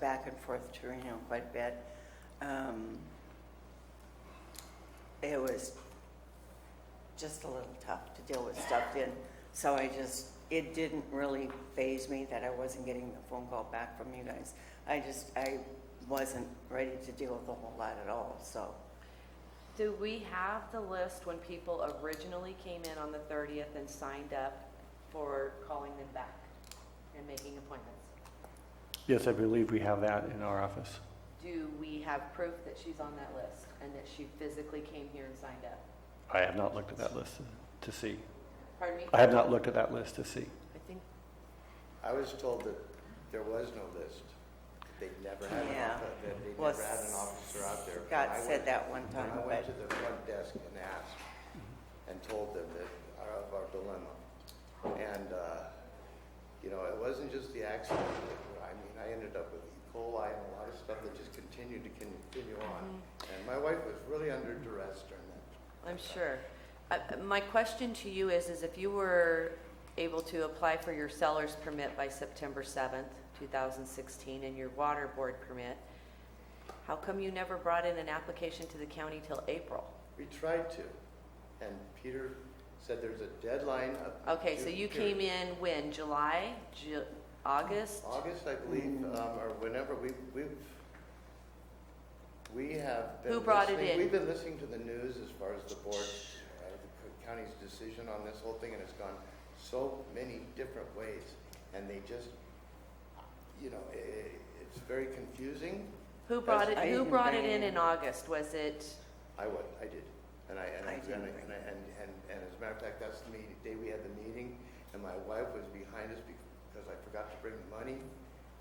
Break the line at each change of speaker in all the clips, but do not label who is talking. back and forth to Reno quite a bit. Um, It was just a little tough to deal with stuff then, so I just, it didn't really phase me that I wasn't getting the phone call back from you guys. I just, I wasn't ready to deal with a whole lot at all, so.
Do we have the list when people originally came in on the 30th and signed up for calling them back and making appointments?
Yes, I believe we have that in our office.
Do we have proof that she's on that list and that she physically came here and signed up?
I have not looked at that list to see.
Pardon me?
I have not looked at that list to see.
I think,
I was told that there was no list. They'd never had an
Yeah.
officer, that they'd
Well,
never had an officer out there.
Scott
When I
said
went-
that one time,
When I
but
went to the front desk and asked, and told them that, our- of our dilemma. And, uh, you know, it wasn't just the accident. I mean, I ended up with E. coli and a lot of stuff that just continued to continue on.
Mm-hmm.
And my wife was really under duress during that.
I'm sure. Uh, My question to you is, is if you were able to apply for your seller's permit by September 7th, 2016, and your water board permit, how come you never brought in an application to the county till April?
We tried to, and Peter said there's a deadline of.
Okay, so
due
you
period.
came in when, July, Ju- August?
August, I believe, um, or whenever, we, we've, we have been.
Who brought it
listening-
in?
We've been listening to the news as far as the board, uh, the county's decision on this whole thing, and it's gone so many different ways. And they just, you know, i- i- it's very confusing.
Who brought it,
I
who
didn't
brought it
bring
in
it in.
in August? Was it,
I would, I did. And I, and I,
I
and
didn't
I-
think.
and, I- and, and and as a matter of fact, that's the meeting, day we had the meeting, and my wife was behind us because I forgot to bring the money,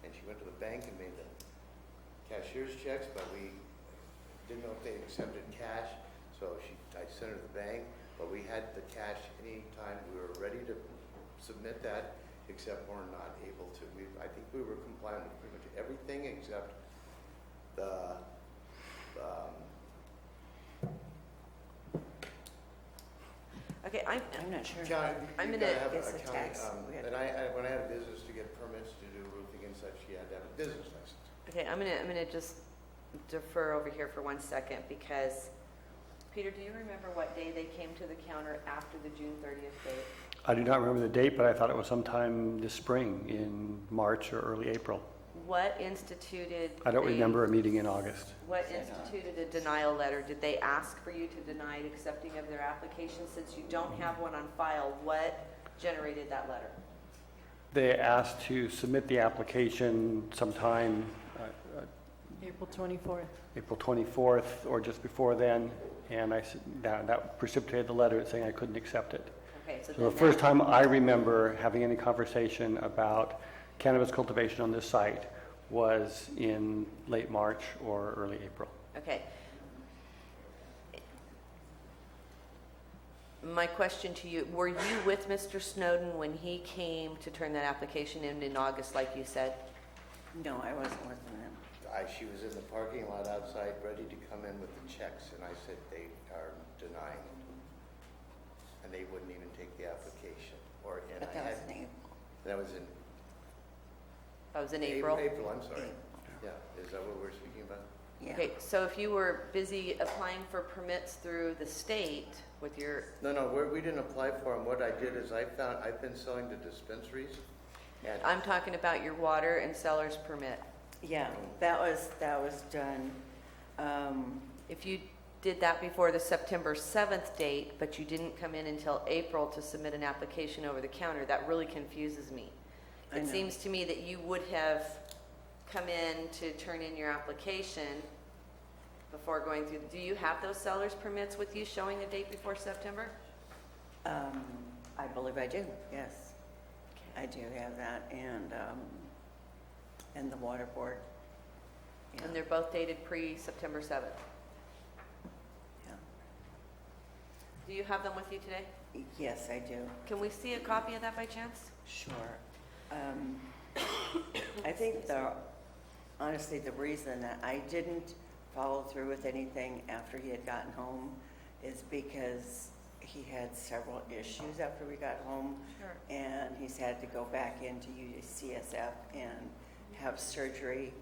and she went to the bank and made the cashier's checks, but we didn't know if they accepted cash, so she, I sent her to the bank, but we had the cash anytime we were ready to submit that, except we're not able to. We, I think we were compliant with pretty much everything except the, um,
okay, I'm,
I'm not sure.
County,
I'm
you
gonna-
gotta have
It's
a
a
county,
tax.
um,
We had-
and I, I, when I had a business to get permits to do roofing and such, you had to have a business license.
okay, I'm gonna, I'm gonna just defer over here for one second because, Peter, do you remember what day they came to the counter after the June thirtieth date?
I do not remember the date, but I thought it was sometime this spring, in March or early April.
What instituted?
I don't
the-
remember a meeting in August.
What
Is it not?
instituted a denial letter? Did they ask for you to deny accepting of their application since you don't have one on file? What generated that letter?
They asked to submit the application sometime uh, uh,
April 24th.
April 24th or just before then, and I, s- that that precipitated the letter saying I couldn't accept it.
Okay, so then
So the
that-
first time I remember having any conversation about cannabis cultivation on this site was in late March or early April.
Okay. My question to you, were you with Mr. Snowden when he came to turn that application in in August, like you said?
No, I wasn't with them.
I, she was in the parking lot outside, ready to come in with the checks, and I said they are denying it. And they wouldn't even take the application, or, and
But
I
that
had,
was in April.
that was in.
That was in
Ap-
April?
April, I'm sorry.
April. Mm.
Yeah, is that what we're speaking about?
Yeah.
Okay, so if you were busy applying for permits through the state with your,
No, no, we're, we didn't apply for them. What I did is I found, I've been selling to dispensaries, and
I'm talking about your water and seller's permit.
Yeah, that was, that was done, um,
If you did that before the September 7th date, but you didn't come in until April to submit an application over the counter, that really confuses me.
I
It
know.
seems to me that you would have come in to turn in your application before going through, do you have those seller's permits with you showing a date before September?
um, I believe I do, yes. I do have that, and, um, and the water board. Yeah,
And they're both dated pre-September 7th.
yeah.
Do you have them with you today?
Yes, I do,
Can we see a copy of that by chance?
sure. Um, I think the, honestly, the reason that I didn't follow through with anything after he had gotten home is because he had several issues after we got home.
Sure.
and he's had to go back into UCSF and have surgery